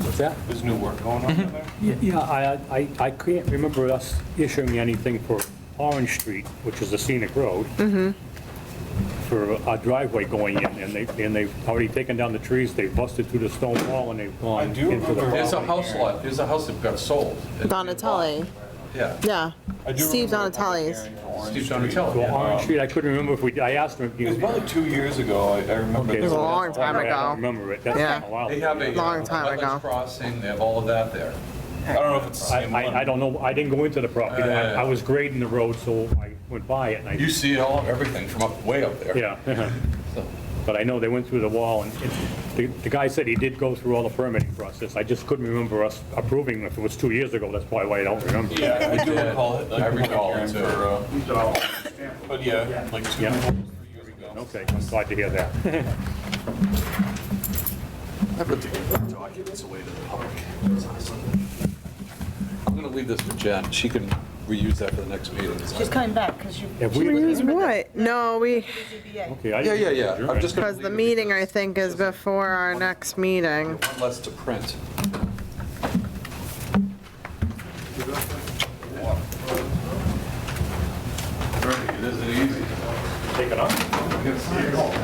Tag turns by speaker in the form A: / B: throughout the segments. A: What's that?
B: There's new work going on
C: Mm-hmm.
B: in there?
A: Yeah, I, I, I can't remember us issuing anything for Orange Street, which is a scenic road. For a driveway going in, and they, and they've already taken down the trees, they've busted through the stone wall, and they've
B: I
A: gone
B: do
A: into
B: remember.
A: the property.
D: There's a house lot, there's a house that got sold.
C: Donatelli,
D: Yeah,
C: yeah.
B: I do
C: Steve
B: remember a public
C: Donatelli's.
B: hearing for Orange
D: Steve
B: Street.
D: Donatelli,
A: Well,
D: yeah.
A: Orange Street, I couldn't remember if we, I asked them if
B: It
A: you.
B: was probably two years ago, I I remember.
A: Okay,
C: It was a
A: so
C: long
A: that's
C: time
A: why I
C: ago.
A: don't remember it, that's
C: Yeah.
A: been a while.
D: They have a. uh,
C: Long
D: wetlands
C: time ago.
D: Crossing, they have all of that there.
B: I don't know if it's the
A: I,
B: same one.
A: I, I don't know, I didn't go into the property, I I was grading the road, so I went by it, and
D: You
A: I,
D: see it all, everything from up, way up there.
A: yeah.
D: So,
A: But I know they went through the wall, and it- the the guy said he did go through all the permitting process. I just couldn't remember us approving, if it was two years ago, that's probably why I don't remember.
B: Yeah, I do recall it. like,
D: I recall
B: hearing
D: it, too.
B: for, uh, But yeah, like two,
A: Yeah.
B: three years ago.
A: Okay, I'm glad to hear that.
D: Documents away to the public. I'm gonna leave this to Jen, she can reuse that for the next meeting.
E: She's coming back because you.
A: Have we-
C: Use what? No, we,
A: Okay, I-
D: Yeah, yeah, yeah, I'm just gonna.
C: because the
D: leave it
C: meeting, I
D: because
C: think, is before our next meeting.
D: one Less to print.
B: It isn't easy.
A: Take it off.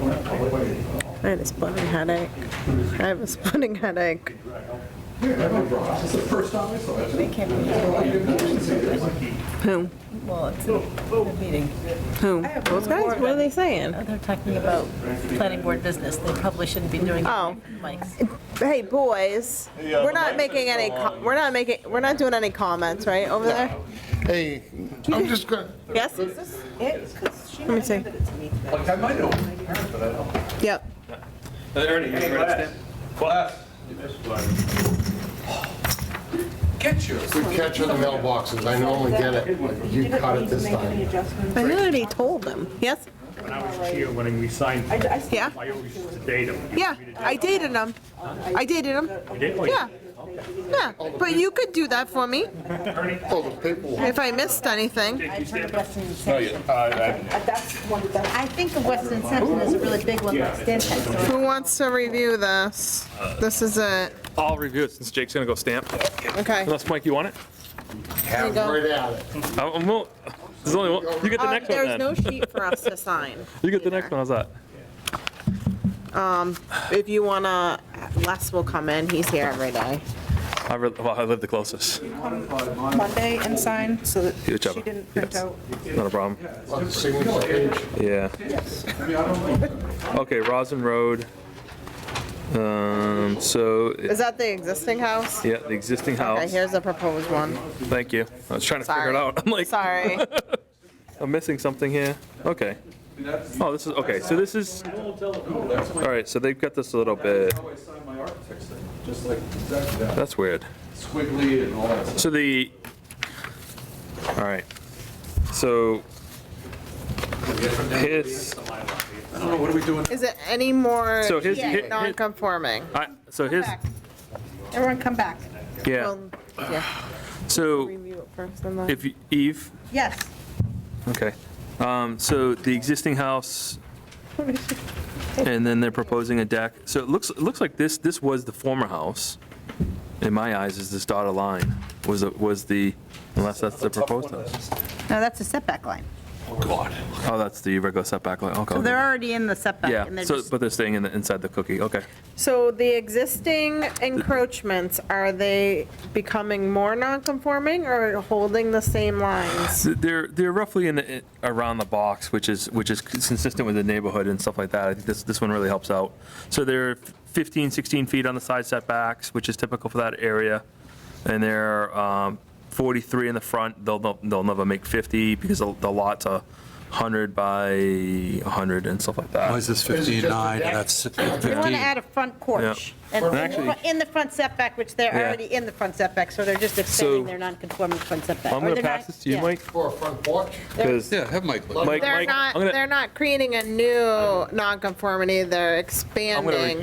C: I had a splitting headache. I have a splitting headache.
E: They can't be here.
C: Who?
E: Well, it's a meeting.
C: Who? Those guys? What are they saying?
E: They're talking about planning board business. They probably shouldn't be doing
C: Oh.
E: mics.
C: Hey, boys,
B: Yeah,
C: we're
B: the
C: not
B: mics
C: making
B: are
C: any,
B: still
C: co-
B: on.
C: we're not making, we're not doing any comments, right, over there?
F: Hey, I'm just gonna,
C: Yes? Let me see.
D: Like, I might know, but I don't.
C: Yep.
D: Class. Get yours.
F: good catch on the mailboxes, I normally get it, but you caught it this time.
C: I already told them. Yes?
A: When I was here, when we signed,
C: Yeah?
A: I always used to date them.
C: Yeah, I dated them. I dated them. Yeah. Yeah, but you could do that for me
F: Oh, the paperwork.
C: if I missed anything.
B: No, yeah, I, I,
E: I think the Western section is a really big one, like Stan had, so
C: Who wants to review this? This is it.
G: I'll review it since Jake's gonna go stamp.
C: Okay.
G: Unless, Mike, you want it?
C: There you
F: Right
C: go.
F: at it.
G: I- I'm will- There's only one. You get the
C: Um,
G: next one
C: There's no
G: then.
C: sheet for us to sign.
G: You get the next one, how's that?
C: If you wanna, Les will come in. He's here every day.
G: I re- well, I live the closest.
H: Monday and sign, so that she
G: Good job.
H: didn't print
G: Yes.
H: out.
G: Not a problem.
F: Lots of signature page.
G: Yeah. Okay, Rosin Road. Um, so,
C: Is that the existing house?
G: yeah, the existing
C: Okay,
G: house.
C: here's the proposed one.
G: Thank you. I was trying to figure
C: Sorry.
G: it out. I'm like,
C: Sorry.
G: I'm missing something here. Okay. Oh, this is, okay, so this is, all right, so they've got this a little bit,
D: I signed my architect's thing, just like exactly that,
G: that's weird.
D: squiggly and all that stuff.
G: So the, all right, so his,
D: I don't know, what are we doing?
C: Is it any more
G: So his- hi- hi-
C: non-conforming?
G: I, so his,
H: Everyone come back.
G: yeah,
C: Well, yeah,
G: so
C: review it first and then-
G: if you- Eve,
H: Yes.
G: okay, um, so the existing house, and then they're proposing a deck, so it looks, it looks like this, this was the former house, in my eyes, is this dotted line, was, it- was the, unless that's the proposed house.
H: No, that's a setback line.
D: God.
G: Oh, that's the regular setback line, okay,
H: They're
G: okay.
H: already in the setback. and
G: Yeah,
H: they're
G: so,
H: just-
G: but they're staying in the, inside the cookie, okay.
C: So the existing encroachments, are they becoming more non-conforming or holding the same lines?
G: They're, they're roughly in, the- around the box, which is, which is consistent with the neighborhood and stuff like that. I think this, this one really helps out. So they're 15, 16 feet on the side setbacks, which is typical for that area. And they're um, 43 in the front. They'll, they'll they'll never make 50 because the the lot's a 100 by 100 and stuff like
D: Why
G: that.
D: Oh, is this 59 and that's
H: They want to
D: 15?
H: add a front porch. And
G: Actually-
H: in the front setback, which they're
G: Yeah.
H: already in the front setback, so they're just
G: So-
H: extending their non-conforming front setback.
G: I'm
H: Or
G: going to
H: they're
G: pass
H: not-
G: this to you,
H: yeah.
G: Mike,
F: For a front porch,
G: because
D: Yeah, have Mike look.
G: Mike,
C: They're
G: Mike, I'm
C: not,
G: gonna-
C: they're not creating a new non-conformity, they're expanding.